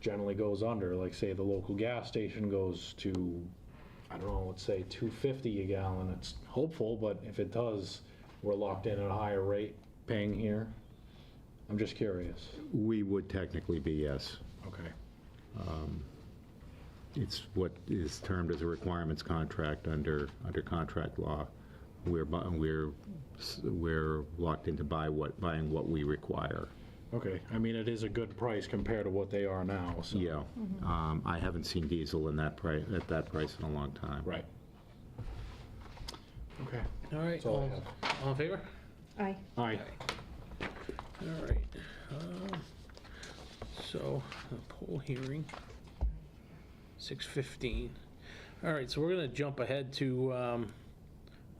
generally goes under, like say the local gas station goes to, I don't know, let's say 250 a gallon, it's hopeful, but if it does, we're locked in at a higher rate paying here. I'm just curious. We would technically be, yes. Okay. It's what is termed as a requirements contract under, under contract law. We're, bu- we're, s- we're locked into buy what, buying what we require. Okay, I mean, it is a good price compared to what they are now, so. Yeah. Mm-hmm. Um, I haven't seen diesel in that price, at that price in a long time. Right. Okay. All right, That's all I all all in favor? Aye. Aye. All right. um, So, a poll hearing, 6:15. All right, so we're going to jump ahead to, um,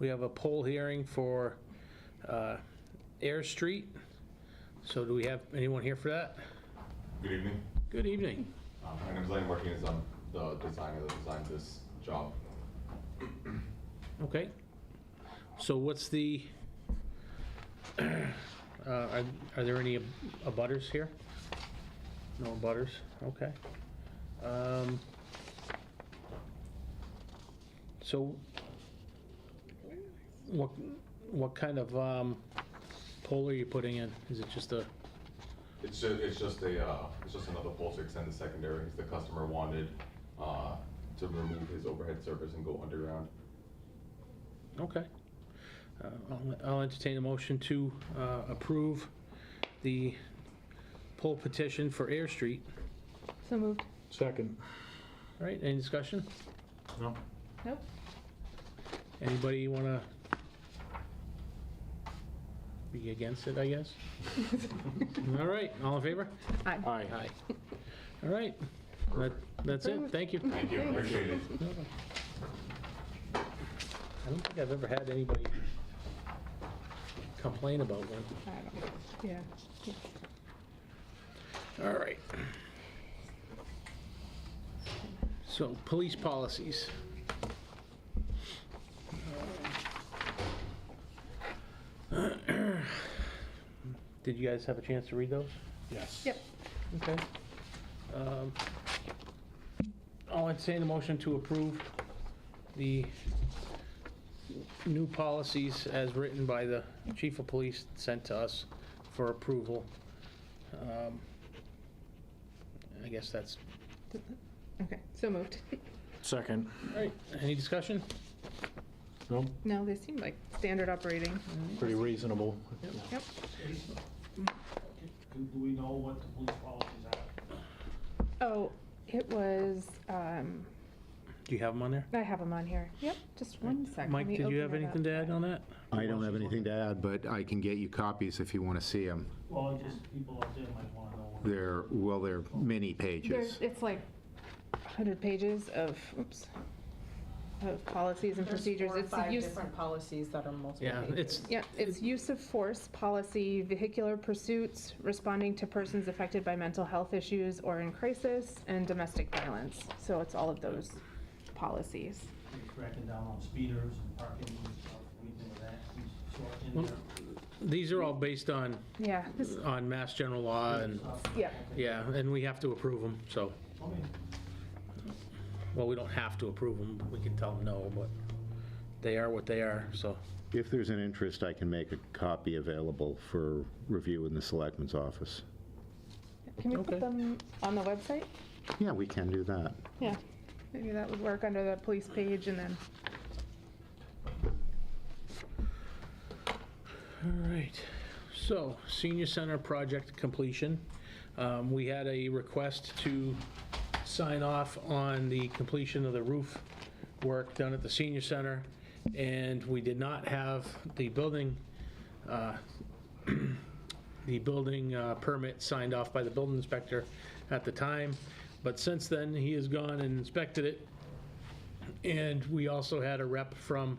we have a poll hearing for uh, Air Street. So do we have anyone here for that? Good evening. Good evening. Uh, My name is Lane Martinez. I'm the designer that designed this job. Okay. So what's the, uh, are are there any abutters here? No abutters, okay. Um, So what, what kind of um, pole are you putting in? Is it just a, It's just, it's just a, uh, it's just another pole to extend the secondaries. The customer wanted uh, to remove his overhead service and go underground. okay. Uh, I'll- I'll entertain a motion to uh, approve the pole petition for Air Street. So moved. Second. All right, any discussion? No? Nope. Anybody want to be against it, I guess? All right, all in favor? Aye. Aye. All right, that, that's it, thank you. Thank you. Appreciate it. I don't think I've ever had anybody complain about one. I don't- Yeah. All right. So, police policies. Did you guys have a chance to read those? Yes. Yep. Okay. Um, I'll entertain a motion to approve the new policies as written by the chief of police sent to us for approval. Um, I guess that's, Okay. So moved. Second. all right, any discussion? No? No, they seem like standard operating. Pretty reasonable. Yep. Do do we know what the police policies are? Oh, it was, um, Do you have them on there? I have them on here. Yep. Just one second. Mike, did you have anything to add on that? I don't have anything to add, but I can get you copies if you want to see them. Well, just people out there might want to know. what- They're, well, they're many pages. There's, it's like 100 pages of, oops, of policies and procedures. There's It's four or the five use. different policies that are multiple Yeah, pages. it's, Yeah, it's use of force policy, vehicular pursuits, responding to persons affected by mental health issues or in crisis, and domestic violence. So it's all of those policies. They're Cracking down on speeders and parking and stuff, anything of that sort in there. these are all based on, Yeah, this, on mass general law and, Stuff. yeah, yeah, and we have to approve them, so. Okay. Well, we don't have to approve them, we can tell them no, but they are what they are, so. If there's an interest, I can make a copy available for review in the selectman's office. can we Okay. put them on the website? Yeah, we can do that. Yeah, maybe that would work under the police page and then, All right, so senior center project completion. Um, We had a request to sign off on the completion of the roof work done at the senior center, and we did not have the building, uh, the building uh, permit signed off by the building inspector at the time, but since then, he has gone and inspected it, and we also had a rep from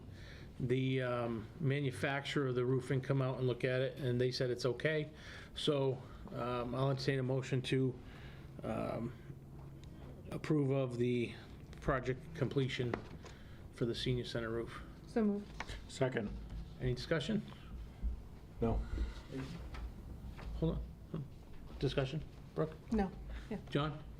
the um, manufacturer of the roofing come out and look at it, and they said it's okay. So um, I'll entertain a motion to um, approve of the project completion for the senior center roof. so move. Second. Any discussion? No? Hold on. Discussion? Brooke? No. John?